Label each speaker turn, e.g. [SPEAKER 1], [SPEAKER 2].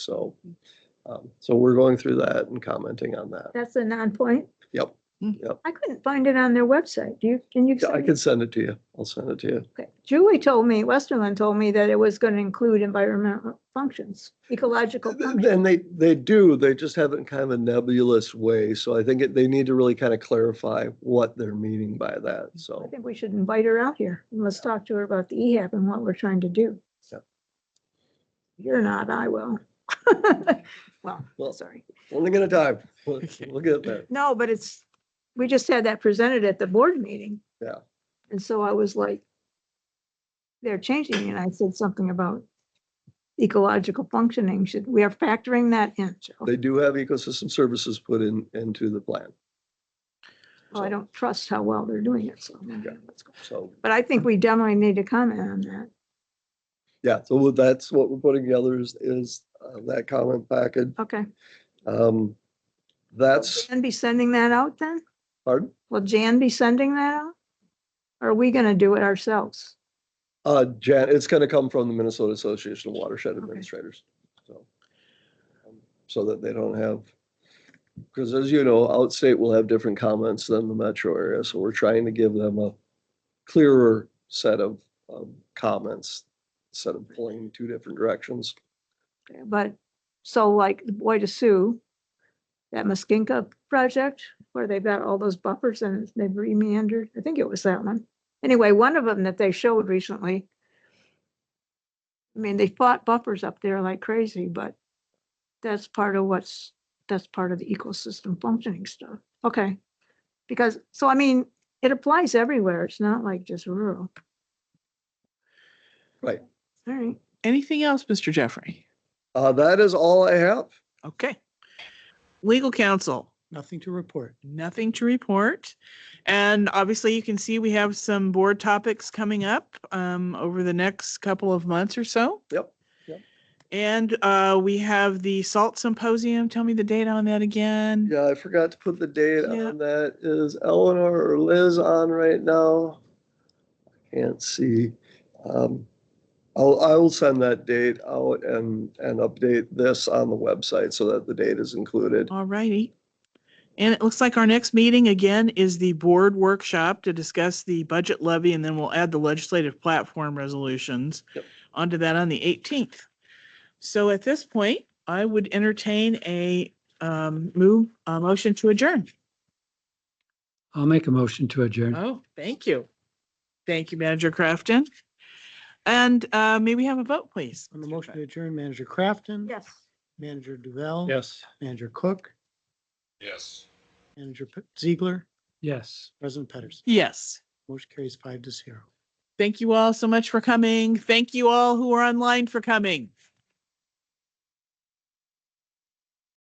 [SPEAKER 1] So, um, so we're going through that and commenting on that.
[SPEAKER 2] That's a non-point.
[SPEAKER 1] Yep,
[SPEAKER 2] I couldn't find it on their website. Do you, can you?
[SPEAKER 1] Yeah, I
[SPEAKER 2] send
[SPEAKER 1] can send it to you. I'll send it to you.
[SPEAKER 2] Okay. Julie told me, Westerland told me that it was going to include environmental functions, ecological functions.
[SPEAKER 1] And they, they do, they just have it in kind of a nebulous way. So I think it- they need to really kind of clarify what they're meaning by that.
[SPEAKER 2] I
[SPEAKER 1] So,
[SPEAKER 2] think we should invite her out here and let's talk to her about the E EHAB and what we're trying to do.
[SPEAKER 1] Yeah.
[SPEAKER 2] You're not, I will. Well,
[SPEAKER 1] Well-
[SPEAKER 2] sorry.
[SPEAKER 1] only gonna dive, we'll we'll get there.
[SPEAKER 2] No, but it's, we just had that presented at the board meeting.
[SPEAKER 1] Yeah.
[SPEAKER 2] And so I was like, they're changing, it," and I said something about ecological functioning, should, we are factoring that in, Joe.
[SPEAKER 1] They do have ecosystem services put in, into the plan.
[SPEAKER 2] Well, I don't trust how well they're doing it, so.
[SPEAKER 1] Yeah. So,
[SPEAKER 2] But I think we definitely need to comment on that.
[SPEAKER 1] yeah, so that's what we're putting together is, is uh, that comment package.
[SPEAKER 2] Okay.
[SPEAKER 1] Um, that's,
[SPEAKER 2] And be sending that out then?
[SPEAKER 1] pardon?
[SPEAKER 2] Will Jan be sending that out? Or Are we gonna do it ourselves?
[SPEAKER 1] Uh, Jan, it's gonna come from the Minnesota Association of Watershed Administrators, so. um, So that they don't have, because as you know, outstate will have different comments than the metro area, so we're trying to give them a clearer set of, of comments instead of pulling two different directions.
[SPEAKER 2] But, so like the Boy to Sue, that Muskingum project where they've got all those buffers and they've remeandered, I think it was that one. Anyway, one of them that they showed recently. I mean, they fought buffers up there like crazy, but that's part of what's, that's part of the ecosystem functioning stuff. Okay. Because, so I mean, it applies everywhere. It's not like just rural.
[SPEAKER 1] Right.
[SPEAKER 2] All right.
[SPEAKER 3] Anything else, Mr. Jeffrey?
[SPEAKER 1] Uh, that is all I have.
[SPEAKER 3] Okay. Legal counsel,
[SPEAKER 4] Nothing to report.
[SPEAKER 3] nothing to report. And obviously, you can see we have some board topics coming up um, over the next couple of months or so.
[SPEAKER 1] Yep, yep.
[SPEAKER 3] And uh, we have the SALT Symposium. Tell me the date on that again.
[SPEAKER 1] Yeah, I forgot to put the date
[SPEAKER 3] Yeah.
[SPEAKER 1] on that. Is Eleanor or Liz on right now? I Can't see. Um, I'll, I will send that date out and, and update this on the website so that the date is included.
[SPEAKER 3] All righty. And it looks like our next meeting again is the board workshop to discuss the budget levy, and then we'll add the legislative platform resolutions
[SPEAKER 1] Yep.
[SPEAKER 3] onto that on the 18th. So at this point, I would entertain a um, move, a motion to adjourn.
[SPEAKER 4] I'll make a motion to adjourn.
[SPEAKER 3] Oh, thank you. Thank you, Manager Crafton. And uh, may we have a vote, please?
[SPEAKER 4] On the motion to adjourn, Manager Crafton.
[SPEAKER 2] Yes.
[SPEAKER 4] Manager Duval.
[SPEAKER 5] Yes.
[SPEAKER 4] Manager Cook,
[SPEAKER 5] Yes.
[SPEAKER 4] Manager P- Ziegler,
[SPEAKER 5] Yes.
[SPEAKER 4] President Pedersen.
[SPEAKER 3] Yes.
[SPEAKER 4] Motion carries five to zero.
[SPEAKER 3] Thank you all so much for coming. Thank you all who are online for coming.